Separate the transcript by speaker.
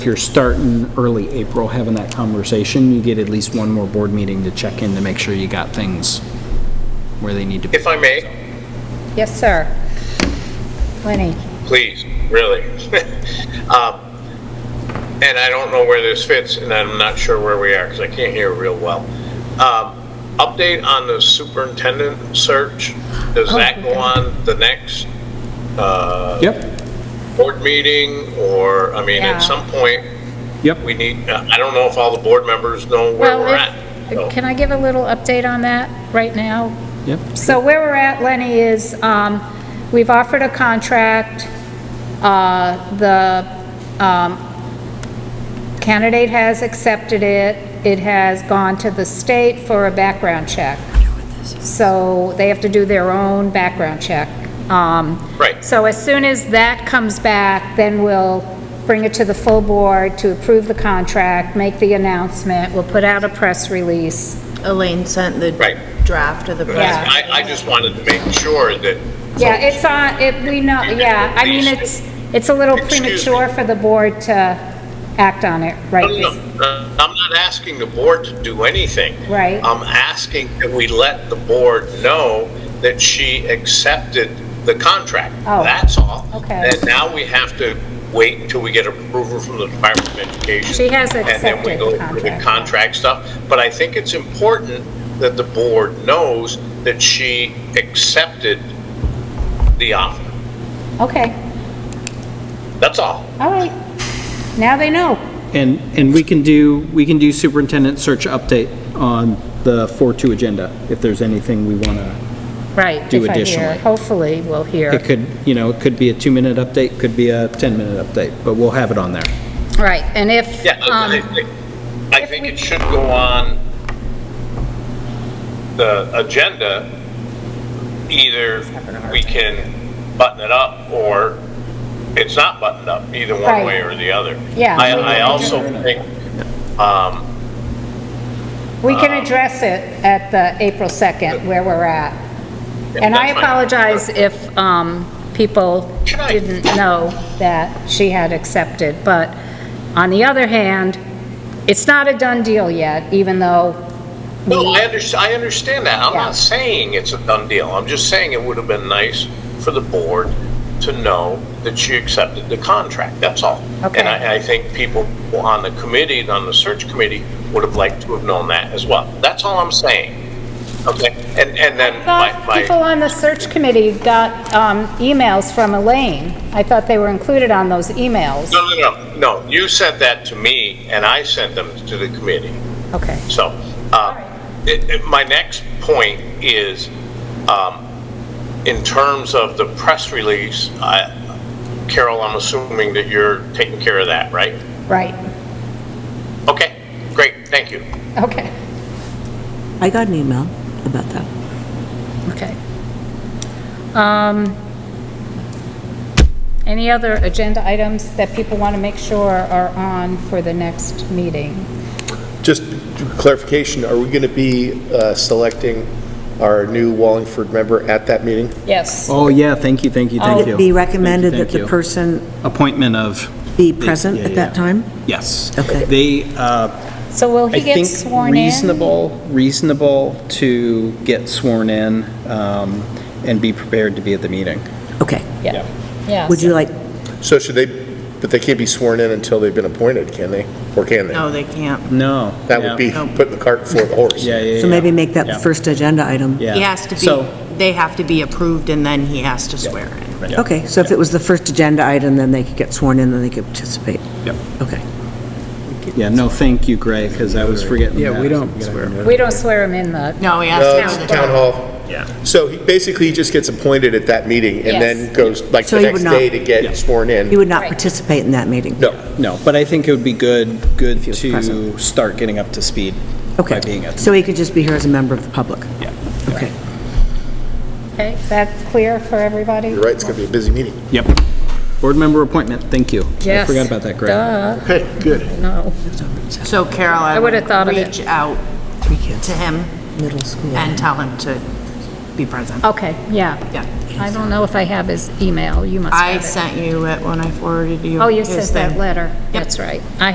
Speaker 1: If you're starting early April, having that conversation, you get at least one more board meeting to check in to make sure you got things where they need to be.
Speaker 2: If I may,
Speaker 3: Yes, sir. Lenny?
Speaker 2: please, really. Um, And I don't know where this fits, and I'm not sure where we are, because I can't hear real well. Um, Update on the superintendent search, does
Speaker 3: Oh,
Speaker 2: that go on the next uh,
Speaker 1: Yep,
Speaker 2: board meeting? Or, I mean,
Speaker 3: Yeah.
Speaker 2: at some point,
Speaker 1: yep.
Speaker 2: we need, uh, I don't know if all the board members know where
Speaker 3: Well,
Speaker 2: we're
Speaker 3: if- uh,
Speaker 2: at. so-
Speaker 3: Can I give a little update on that right now?
Speaker 1: Yep.
Speaker 3: So where we're at, Lenny, is um, we've offered a contract. Uh, The um, candidate has accepted it. It has gone to the state for a background check. So they have to do their own background check. Um,
Speaker 2: Right.
Speaker 3: So as soon as that comes back, then we'll bring it to the full board to approve the contract, make the announcement, we'll put out a press release.
Speaker 4: Elaine sent the
Speaker 2: Right.
Speaker 4: draft of the
Speaker 3: Yeah.
Speaker 4: press.
Speaker 2: I, I just wanted to make sure that.
Speaker 3: Yeah, it's on, it, we know, yeah, I mean, it's, it's a little
Speaker 2: Excuse me.
Speaker 3: premature for the board to act on it, right?
Speaker 2: No, no, no. Uh, I'm not asking the board to do anything.
Speaker 3: Right.
Speaker 2: I'm asking that we let the board know that she accepted the contract.
Speaker 3: Oh,
Speaker 2: That's all.
Speaker 3: okay.
Speaker 2: And now we have to wait until we get approval from the Department of Education.
Speaker 3: She has
Speaker 2: And then we
Speaker 3: accepted
Speaker 2: go
Speaker 3: the
Speaker 2: through the
Speaker 3: contract.
Speaker 2: contract stuff. But I think it's important that the board knows that she accepted the offer.
Speaker 3: Okay,
Speaker 2: That's all.
Speaker 3: all right. Now they know.
Speaker 1: And, and we can do, we can do superintendent search update on the 4-2 agenda, if there's anything we want to.
Speaker 3: Right.
Speaker 1: Do
Speaker 3: if I hear-
Speaker 1: additionally.
Speaker 3: Hopefully, we'll hear.
Speaker 1: It could, you know, it could be a two-minute update, could be a 10-minute update, but we'll have it on there.
Speaker 3: Right, and if,
Speaker 2: Yeah, I-
Speaker 3: um,
Speaker 2: I- I
Speaker 3: if
Speaker 2: think
Speaker 3: we-
Speaker 2: it should go on the agenda. Either we can button it up or it's not buttoned up, either one
Speaker 3: Right.
Speaker 2: way or the other.
Speaker 3: Yeah.
Speaker 2: I, I also think,
Speaker 3: we can
Speaker 2: Um,
Speaker 3: address it at the April 2nd, where we're at. And I
Speaker 2: that's fine.
Speaker 3: apologize if um, people
Speaker 2: Can I-
Speaker 3: didn't know that she had accepted, but on the other hand, it's not a done deal yet, even though,
Speaker 2: no, I understand, I understand that. I'm
Speaker 3: Yeah.
Speaker 2: not saying it's a done deal. I'm just saying it would have been nice for the board to know that she accepted the contract, that's all.
Speaker 3: Okay.
Speaker 2: And I, I think people on the committee, on the search committee, would have liked to have known that as well. That's all I'm saying. Okay, and, and then my,
Speaker 3: thought people
Speaker 2: my,
Speaker 3: on the search committee got um, emails from Elaine. I thought they were included on those emails.
Speaker 2: no, no, no, no, you sent that to me and I sent them to the committee.
Speaker 3: Okay,
Speaker 2: So, uh, it- it- my next point is, um, in terms of the press release, I- Carol, I'm assuming that you're taking care of that, right?
Speaker 3: right,
Speaker 2: Okay, great, thank you.
Speaker 3: okay,
Speaker 5: I got an email about that.
Speaker 3: okay. Um, Any other agenda items that people want to make sure are on for the next meeting?
Speaker 6: Just clarification, are we going to be uh, selecting our new Wallingford member at that meeting?
Speaker 3: Yes.
Speaker 1: Oh, yeah, thank you, thank you, thank you.
Speaker 5: It Oh, be recommended
Speaker 1: Thank
Speaker 5: that
Speaker 1: you, thank you.
Speaker 5: the person
Speaker 1: Appointment of,
Speaker 5: be present
Speaker 1: yeah,
Speaker 5: at that
Speaker 1: yeah.
Speaker 5: time?
Speaker 1: yes.
Speaker 5: Okay.
Speaker 1: They, uh,
Speaker 3: So will
Speaker 1: I
Speaker 3: he get
Speaker 1: think
Speaker 3: sworn in?
Speaker 1: reasonable, reasonable to get sworn in um, and be prepared to be at the meeting.
Speaker 5: Okay.
Speaker 3: Yeah, yeah.
Speaker 5: Would you like,
Speaker 6: So should they, but they can't be sworn in until they've been appointed, can they? Or can they?
Speaker 4: No, they can't.
Speaker 1: No.
Speaker 6: That would be putting the cart before the horse.
Speaker 1: Yeah, yeah, yeah.
Speaker 5: so maybe make that
Speaker 1: Yeah.
Speaker 5: the first agenda item?
Speaker 1: Yeah.
Speaker 4: He has to
Speaker 1: So-
Speaker 4: be, they have to be approved and then he has to swear in.
Speaker 5: Okay, so if it was the first agenda item, then they could get sworn in, then they could participate?
Speaker 1: Yep.
Speaker 5: Okay.
Speaker 1: Yeah, no, thank you, Gray, because I was forgetting that. Yeah, we don't
Speaker 3: We don't swear him in, though.
Speaker 4: No, he
Speaker 6: Uh,
Speaker 4: has
Speaker 6: it's
Speaker 4: to.
Speaker 6: the Town hall. Yeah. So he basically he just gets appointed at that meeting and then
Speaker 3: Yes.
Speaker 6: goes like
Speaker 5: So
Speaker 6: the
Speaker 5: he
Speaker 6: next
Speaker 5: would not-
Speaker 6: day to get sworn
Speaker 5: You
Speaker 6: in?
Speaker 5: would not
Speaker 3: Right.
Speaker 5: participate in that meeting?
Speaker 6: No.
Speaker 1: No, but I think it would be good, good
Speaker 5: was
Speaker 1: to
Speaker 5: present.
Speaker 1: start getting up to speed by being
Speaker 5: Okay.
Speaker 1: at.
Speaker 5: So he could just be here as a member of the public?
Speaker 1: Yeah.
Speaker 5: Okay.
Speaker 3: Okay, is that clear for everybody?
Speaker 6: You're right, it's going to be a busy meeting.
Speaker 1: Yep. Board member appointment, thank you. I
Speaker 3: Yes.
Speaker 1: forgot about that, Gray.
Speaker 3: Duh,
Speaker 6: Okay, good.
Speaker 3: no.
Speaker 4: So Carol, I would
Speaker 3: would've thought of it.
Speaker 4: reach out
Speaker 5: Three kids,
Speaker 4: to him
Speaker 5: middle school.
Speaker 3: Oh.
Speaker 4: and tell him to be present.
Speaker 3: Okay, yeah.
Speaker 4: Yeah.
Speaker 3: I don't know if I have his email, you must
Speaker 4: I
Speaker 3: have it.
Speaker 4: sent you it when I forwarded you.
Speaker 3: Oh, you
Speaker 4: his
Speaker 3: sent that
Speaker 4: thing.
Speaker 3: letter,
Speaker 4: Yep.
Speaker 3: that's right. I